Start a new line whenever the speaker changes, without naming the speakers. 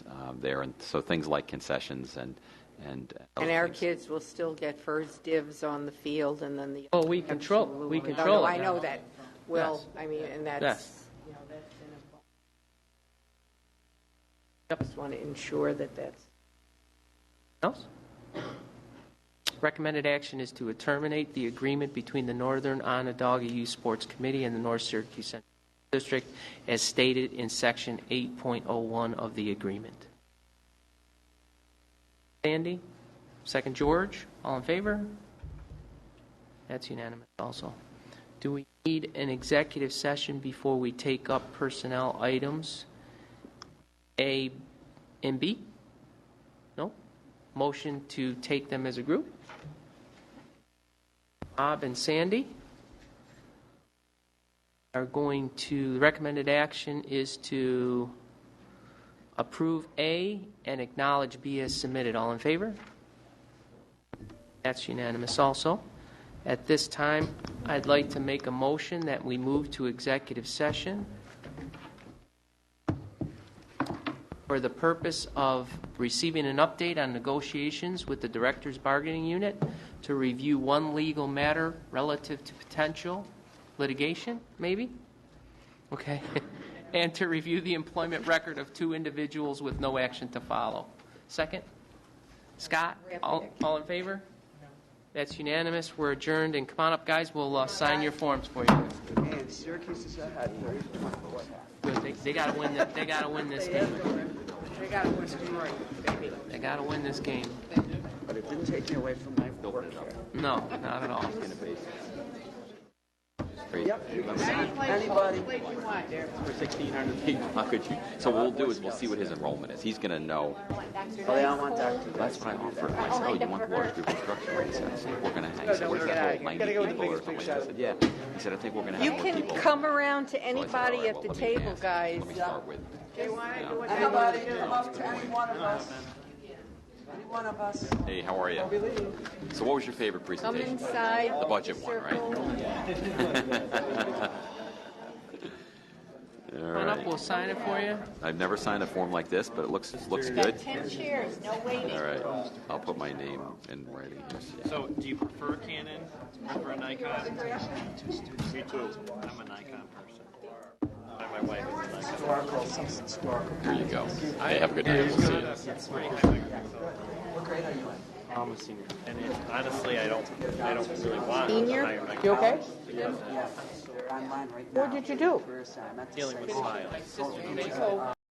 um, there. And so things like concessions and, and.
And our kids will still get first dibs on the field and then the.
Oh, we control- we
Absolutely.
control
No,
it
I know
now.
that. Well,
Yes.
I mean, and
Yes.
that's, you know, that's. in a- Just want to ensure that that's.
Else? Recommended action is to terminate the agreement between the Northern Onondaga Youth Sports Committee and the North Syracuse Central District as stated in Section 8.01 of the agreement. Sandy? Second George? All in favor? That's unanimous also. Do we need an executive session before we take up personnel items A and B? No? Motion to take them as a group? Bob and Sandy are going to, the recommended action is to approve A and acknowledge B as submitted. All in favor? That's unanimous also. At this time, I'd like to make a motion that we move to executive session for the purpose of receiving an update on negotiations with the Directors Bargaining Unit to review one legal matter relative to potential litigation, maybe? Okay. And to review the employment record of two individuals with no action to follow. Second? Scott? All all in favor? That's unanimous. We're adjourned, and come on up, guys. We'll uh, sign your forms for you.
And Syracuse is ahead.
Good. They- They gotta win, thi- they gotta win this game.
They got to what's tomorrow, baby.
They gotta win this game.
But it didn't take me away from my work here.
No, not at all.
Yep, you can see anybody.
For 1,600 people, how could you? So what we'll do is we'll see what his enrollment is. He's going to know.
Oh, they all want Dr.
That's what I offered. I said, oh, you want the large group instruction? Right? He said, I think we're going to, he said, what's that whole 90 people or something? I said, yeah. He said, I think we're going to
You
have more
can
people.
come around to
So I said, all
anybody
right,
at
well,
the
let me
table,
ask.
guys. Uh,
Let me start with,
Anybody, come up to any one of us. Any one of us.
hey, how are you? So what was your favorite
Come
presentation?
inside.
The budget one, right?
circle.
All
Come on up,
right.
we'll sign it for you.
I've never signed a form like this, but it looks, looks good.
Ten chairs, no waiting.
All right. I'll put my name in writing.
So, do you prefer Canon or Nikon? Me too. I'm a Nikon person. My wife is a Nikon.
Historical, some historical.
Here you go. Hey, have a good night. We'll see you.
What grade are you in?
I'm a senior. And it, honestly, I don't, I don't really want
Senior?
a higher Nikon.
You okay?
Yes, they're online right now. What did you do? Dealing
Dealing with smiles.